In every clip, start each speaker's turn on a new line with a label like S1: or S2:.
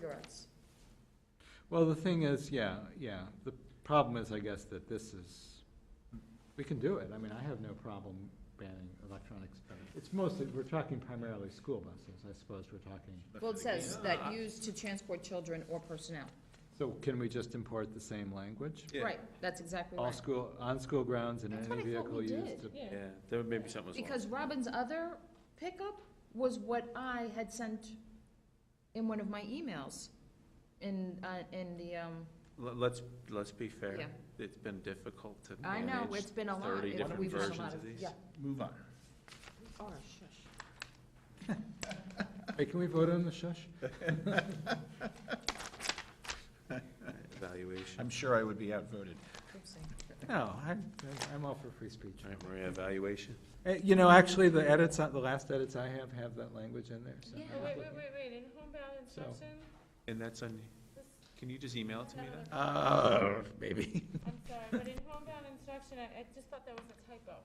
S1: cigarettes.
S2: Well, the thing is, yeah, yeah, the problem is, I guess, that this is, we can do it, I mean, I have no problem banning electronics. It's mostly, we're talking primarily school buses, I suppose we're talking,
S1: Well, it says that used to transport children or personnel.
S2: so can we just import the same language?
S3: Yeah.
S1: Right, that's exactly
S2: All
S1: right.
S2: school, on school grounds and
S1: That's
S2: any
S1: what I thought
S2: vehicle
S1: we did,
S2: used to.
S4: Yeah, there may be something as well.
S1: Because Robin's other pickup was what I had sent in one of my emails in, uh, in the, um,
S4: L- Let's, let's be fair.
S1: Yeah.
S4: It's been difficult to
S1: I know,
S4: manage
S1: it's been a lot.
S4: thirty
S1: It-
S4: different
S1: we've had a
S4: versions
S1: lot
S4: of these.
S1: Yeah.
S3: Move on.
S1: Oh, shush.
S2: Hey, can we vote on the shush?
S4: Evaluation.
S3: I'm sure I would be outvoted.
S1: Oopsie.
S2: No, I, I'm all for free speech.
S4: All right, Maria, evaluation.
S2: Eh, You know, actually, the edits, uh, the last edits I have, have that language in there, so.
S1: Yeah.
S5: Oh, wait, wait, wait, wait, in homebound
S2: So-
S5: instruction,
S4: And that's on,
S5: this,
S4: can you just email it to me then?
S2: Uh, maybe.
S5: I'm sorry, but in homebound instruction, I, I just thought that was a typo.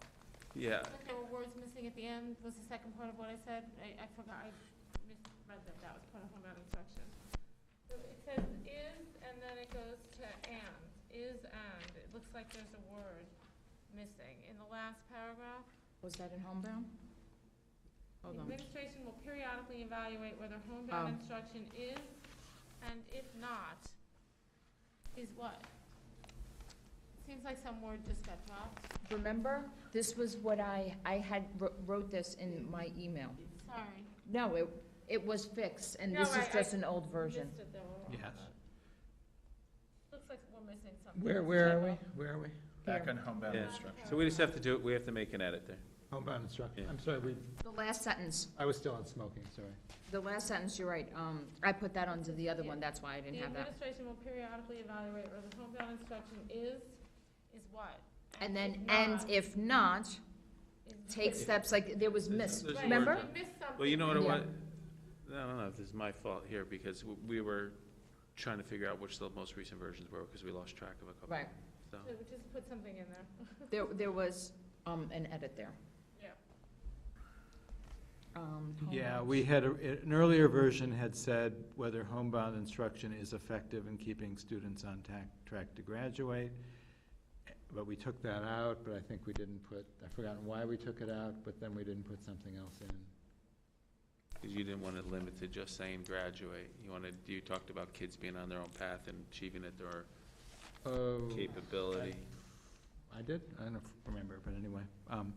S4: Yeah,
S5: But there were words missing at the end, was the second part of what I said, I, I forgot, I misread that, that was part of homebound instruction. So it says is, and then it goes to and, is and, it looks like there's a word missing in the last paragraph.
S1: Was that in homebound? Hold on.
S5: Administration will periodically evaluate whether
S1: Oh.
S5: homebound instruction is, and if not, is what? Seems like some word just got dropped.
S1: Remember, this was what I, I had, wr- wrote this in my email.
S5: Sorry.
S1: No, it, it was fixed, and
S5: No,
S1: this is
S5: I- I
S1: just an old version.
S5: Missed it, though. We're wrong.
S2: Yes.
S5: Looks like we're missing something.
S2: Where, where are we? Where are we?
S3: Back
S1: Here.
S3: on homebound
S4: Yeah.
S3: instruction.
S4: so we just have to do, it. we have to make an edit there.
S2: Homebound instruction.
S4: Yeah.
S2: I'm sorry, we,
S1: The last sentence,
S2: I was still on smoking, sorry.
S1: the last sentence, you're right, um, I put that onto the other one, that's why I didn't
S5: The
S1: have that.
S5: administration will periodically evaluate whether homebound instruction is, is what?
S1: And then,
S5: if
S1: and
S5: not,
S1: if not,
S5: is-
S1: take steps, like, there was miss,
S4: There's a word
S1: remember?
S5: Right, we missed something.
S4: Well, you know what, it
S1: Yeah.
S4: was? I don't know if this is my fault here, because w- we were trying to figure out which the most recent versions were, because we lost track of a couple.
S1: Right,
S4: So,
S5: So we Just put something in there.
S1: there, there was, um, an edit there.
S5: Yeah.
S1: Um,
S2: Yeah,
S1: homebound.
S2: we had, a- an earlier version had said whether homebound instruction is effective in keeping students on tac- track to graduate. But we took that out, but I think we didn't put, I've forgotten why we took it out, but then we didn't put something else in.
S4: 'cause you didn't want it limited to just saying graduate. You wanted, you talked about kids being on their own path and achieving at their
S2: Oh,
S4: capability.
S2: I did? I don't remember, but anyway. Um,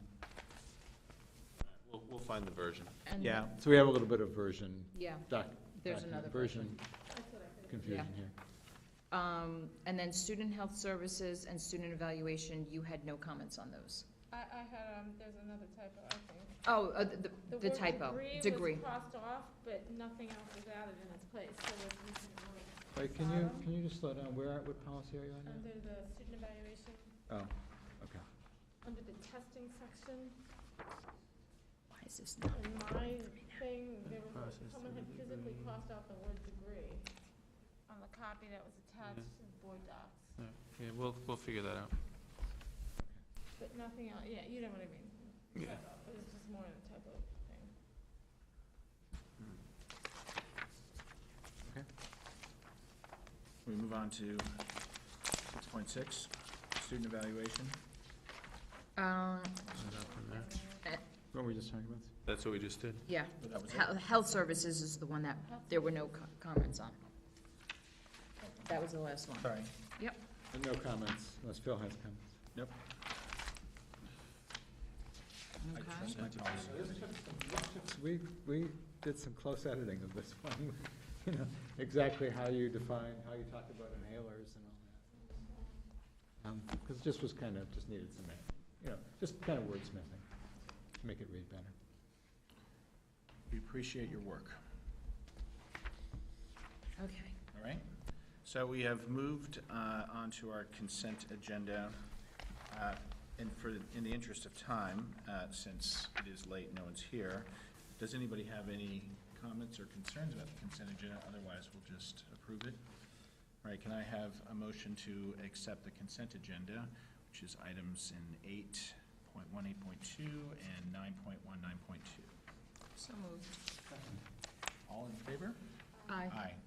S4: We'll, we'll find the version.
S1: And-
S2: Yeah, so we have a little bit of version,
S1: Yeah,
S2: doc,
S1: there's
S2: document
S1: another
S2: version
S5: That's what I figured.
S2: confusion here.
S1: um, and then student health services and student evaluation, you had no comments on those.
S5: I, I had, um, there's another typo, I think.
S1: Oh, uh, the, the
S5: word
S1: typo,
S5: Degree
S1: degree.
S5: was crossed off, but nothing else was added in its place, so it's missing a word.
S2: Wait, can you,
S5: Bottom.
S2: can you just slow down? Where, what policy are you on now?
S5: Under the student evaluation,
S2: Oh, okay.
S5: under the testing section,
S1: Why is this not?
S5: in my thing, there was,
S4: Process
S5: someone
S4: of the
S5: had physically
S4: degree.
S5: crossed out the word degree on the copy that was attached to the board docs,
S4: Yeah, we'll, we'll figure that out.
S5: but nothing else, yeah, you know what I mean.
S4: Yeah.
S5: Typo. It was just more of a typo thing.
S3: We move on to six point six, student evaluation.
S1: Um,
S4: Is that from there?
S2: What were we just talking about?
S4: That's what we just did.
S1: yeah,
S3: But that was it.
S1: Hel- health services is the one that there were no co- comments on. That was the last one.
S3: Sorry.
S2: Uh, No comments, unless Phil has comments.
S3: I
S1: Okay.
S3: trust my policy.
S2: We, we did some close editing of this one, you know, exactly how you define, how you talk about inhalers and all that. Because it just was kind of, just needed some, you know, just kind of wordsmithing to make it read better.
S3: We appreciate your work,
S1: Okay.
S3: all right? So we have moved uh, onto our consent agenda. Uh, And for, in the interest of time, uh, since it is late, no one's here, does anybody have any comments or concerns about the consent agenda? Otherwise, we'll just approve it. All right, can I have a motion to accept the consent agenda, which is items in eight point one, eight point two, and nine point one, nine point two?
S1: So moved.
S3: All in favor?
S1: Aye.
S3: Aye.